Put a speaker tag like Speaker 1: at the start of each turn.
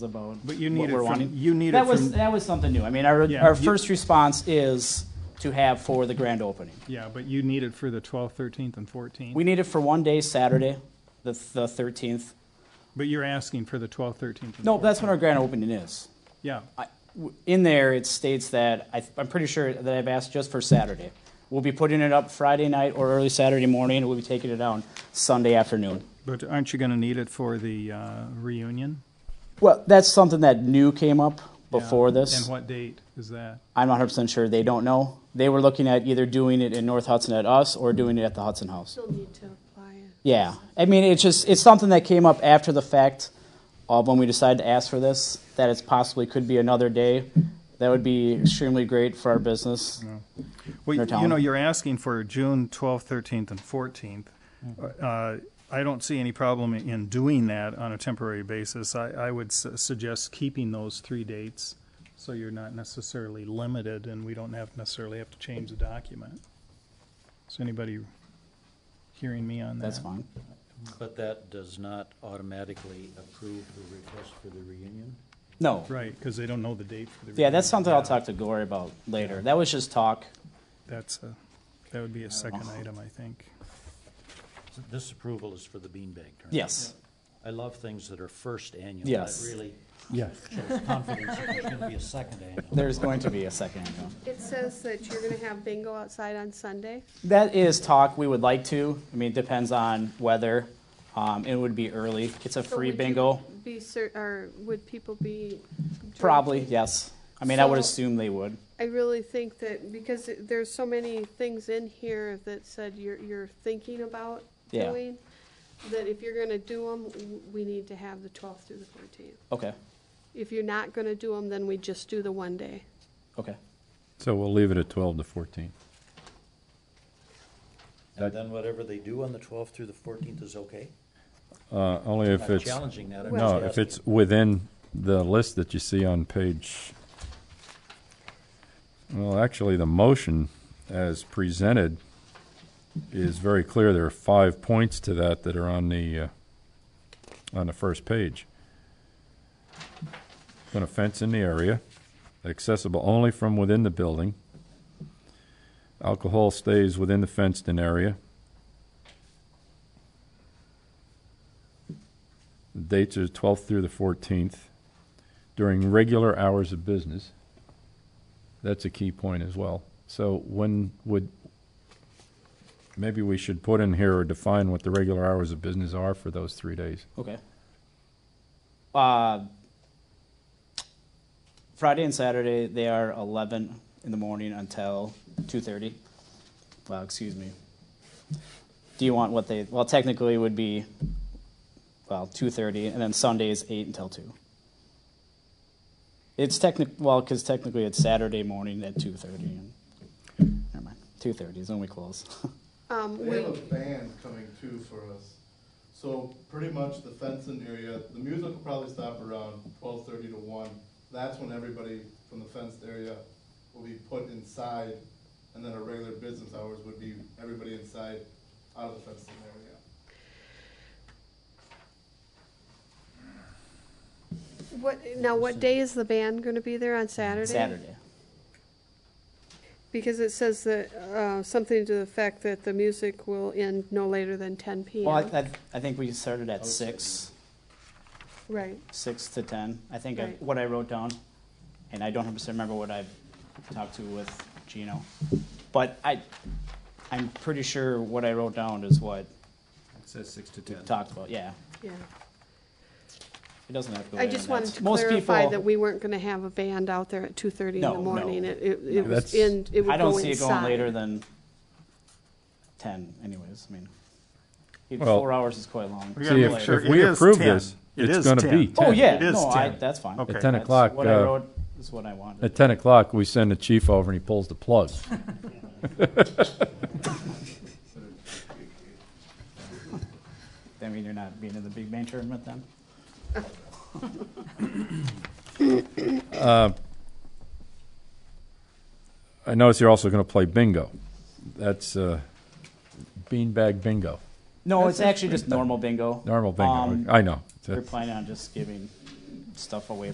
Speaker 1: about.
Speaker 2: But you
Speaker 1: what
Speaker 2: need it
Speaker 1: we're
Speaker 2: from,
Speaker 1: wanting.
Speaker 2: you need it
Speaker 1: That was,
Speaker 2: from,
Speaker 1: that was something new. I mean, our,
Speaker 2: Yeah,
Speaker 1: our
Speaker 2: you-
Speaker 1: first response is to have for the grand opening.
Speaker 2: yeah, but you need it for the 12th, 13th, and 14th.
Speaker 1: We need it for one day, Saturday, the, the thirteenth.
Speaker 2: But you're asking for the 12th, 13th, and 14th.
Speaker 1: No, that's when our grand opening is.
Speaker 2: Yeah,
Speaker 1: I- w- In there, it states that, I, th- I'm pretty sure that I've asked just for Saturday. We'll be putting it up Friday night or early Saturday morning, and we'll be taking it down Sunday afternoon.
Speaker 2: but aren't you going to need it for the uh, reunion?
Speaker 1: Well, that's something that new came up
Speaker 2: Yeah.
Speaker 1: before
Speaker 2: And
Speaker 1: this.
Speaker 2: what date is that?
Speaker 1: I'm not 100% sure. They don't know. They were looking at either doing it in North Hudson at us or doing it at the Hudson House.
Speaker 3: Still need to apply it.
Speaker 1: Yeah, I mean, it's just it's something that came up after the fact of when we decided to ask for this. That it's possibly could be another day. That would be extremely great for our business.
Speaker 2: Well,
Speaker 1: They're
Speaker 2: you know,
Speaker 1: telling-
Speaker 2: you're asking for June 12th, 13th, and 14th.
Speaker 1: Mm-hmm.
Speaker 2: Uh, I don't see any problem in doing that on a temporary basis. I, I would su- suggest keeping those three dates, so you're not necessarily limited, and we don't have, necessarily have to change the document. Is anybody hearing me on that?
Speaker 1: That's fine.
Speaker 4: But that does not automatically approve the request for the reunion?
Speaker 1: No,
Speaker 2: Right, because they don't know the date for the.
Speaker 1: yeah, that's something I'll
Speaker 2: reunion.
Speaker 1: talk to Glory about later. That was just talk.
Speaker 2: That's a, that would be a second item, I think.
Speaker 4: So This approval is for the beanbag tournament?
Speaker 1: Yes.
Speaker 4: I love things that are first annual.
Speaker 1: Yes.
Speaker 4: That really
Speaker 2: Yeah.
Speaker 4: shows confidence that there's going to be a second annual.
Speaker 1: There's going to be a second. annual.
Speaker 3: It says that you're gonna have bingo outside on Sunday.
Speaker 1: That is talk. We would like to. I mean, it depends on weather. Um, it would be early. It's a
Speaker 3: So
Speaker 1: free
Speaker 3: would you
Speaker 1: bingo,
Speaker 3: Be cer, or would people be? drinking?
Speaker 1: probably. Yes. I mean, I would
Speaker 3: So-
Speaker 1: assume they would.
Speaker 3: I really think that, because it- there's so many things in here that said you're, you're thinking about
Speaker 1: Yeah.
Speaker 3: doing, that if you're gonna do them, we need to have the twelfth through the fourteenth.
Speaker 1: Okay.
Speaker 3: If you're not gonna do them, then we just do the one day.
Speaker 1: Okay.
Speaker 5: So we'll leave it at 12 to 14.
Speaker 4: And then whatever they do on the 12th through the 14th is okay?
Speaker 5: Uh, Only if
Speaker 4: Not
Speaker 5: it's,
Speaker 4: challenging that, I'm
Speaker 5: no,
Speaker 4: just
Speaker 5: if
Speaker 4: asking.
Speaker 5: it's within the list that you see on page, well, actually, the motion as presented is very clear. There are five points to that that are on the, uh, on the first page. Going to fence in the area, accessible only from within the building. Alcohol stays within the fenced-in area. The dates are 12th through the 14th, during regular hours of business. That's a key point as well. So when would, maybe we should put in here or define what the regular hours of business are for those three days.
Speaker 1: Okay. Uh, Friday and Saturday they are eleven in the morning until two thirty. Well, excuse me. Do you want what they? Well, technically it would be well two thirty, and then Sunday is eight until two. It's technic well because technically it's Saturday morning at two thirty. Never mind, two thirty is when we close.
Speaker 3: Um,
Speaker 6: They
Speaker 3: we,
Speaker 6: have a band coming too for us. So pretty much the fencing area, the music will probably stop around twelve thirty to one. That's when everybody from the fenced area will be put inside, and then our regular business hours would be everybody inside, out of the fenced area.
Speaker 3: what, now what day is the band gonna be there on Saturday?
Speaker 1: Saturday.
Speaker 3: Because it says that, uh, something to the effect that the music will end no later than ten PM.
Speaker 1: Well, I, I, I think we started at six.
Speaker 3: Right,
Speaker 1: six to ten. I think I,
Speaker 3: Right.
Speaker 1: what I wrote down, and I don't hundred percent remember what I talked to with Gino, but I, I'm pretty sure what I wrote down is what
Speaker 7: It says six to
Speaker 1: we
Speaker 7: ten.
Speaker 1: talked about. Yeah,
Speaker 3: yeah.
Speaker 1: it doesn't have to. Go
Speaker 3: I
Speaker 1: later
Speaker 3: just
Speaker 1: than that.
Speaker 3: wanted to
Speaker 1: Oh, Most
Speaker 3: clarify
Speaker 1: people-
Speaker 3: that we weren't gonna have a band out there at two thirty in
Speaker 1: No,
Speaker 3: the
Speaker 1: no.
Speaker 3: morning. It, it, it was
Speaker 5: That's-
Speaker 3: in, it would go inside.
Speaker 1: I don't see it going later than ten. Anyways, I mean, even
Speaker 5: Well-
Speaker 1: four hours is quite long.
Speaker 2: We gotta
Speaker 5: See,
Speaker 2: make
Speaker 5: if,
Speaker 2: sure
Speaker 5: if
Speaker 2: it
Speaker 5: we
Speaker 2: is
Speaker 5: approve
Speaker 2: 10.
Speaker 5: this,
Speaker 2: It
Speaker 5: it's
Speaker 2: is
Speaker 5: going to
Speaker 2: 10.
Speaker 5: be
Speaker 1: Oh
Speaker 5: 10.
Speaker 1: yeah,
Speaker 2: It is
Speaker 1: no, I,
Speaker 2: 10.
Speaker 1: that's fine.
Speaker 2: Okay.
Speaker 5: At 10
Speaker 1: That's
Speaker 5: o'clock,
Speaker 1: What I
Speaker 5: uh,
Speaker 1: wrote is what I wanted.
Speaker 5: At 10 o'clock, we send the chief over and he pulls the plug.
Speaker 1: I mean, you're not being in the big man tournament then.
Speaker 5: I notice you're also going to play bingo. That's uh, beanbag bingo,
Speaker 1: No, it's actually just normal bingo.
Speaker 5: normal
Speaker 1: Um,
Speaker 5: bingo. I know.
Speaker 1: We're planning on just giving stuff away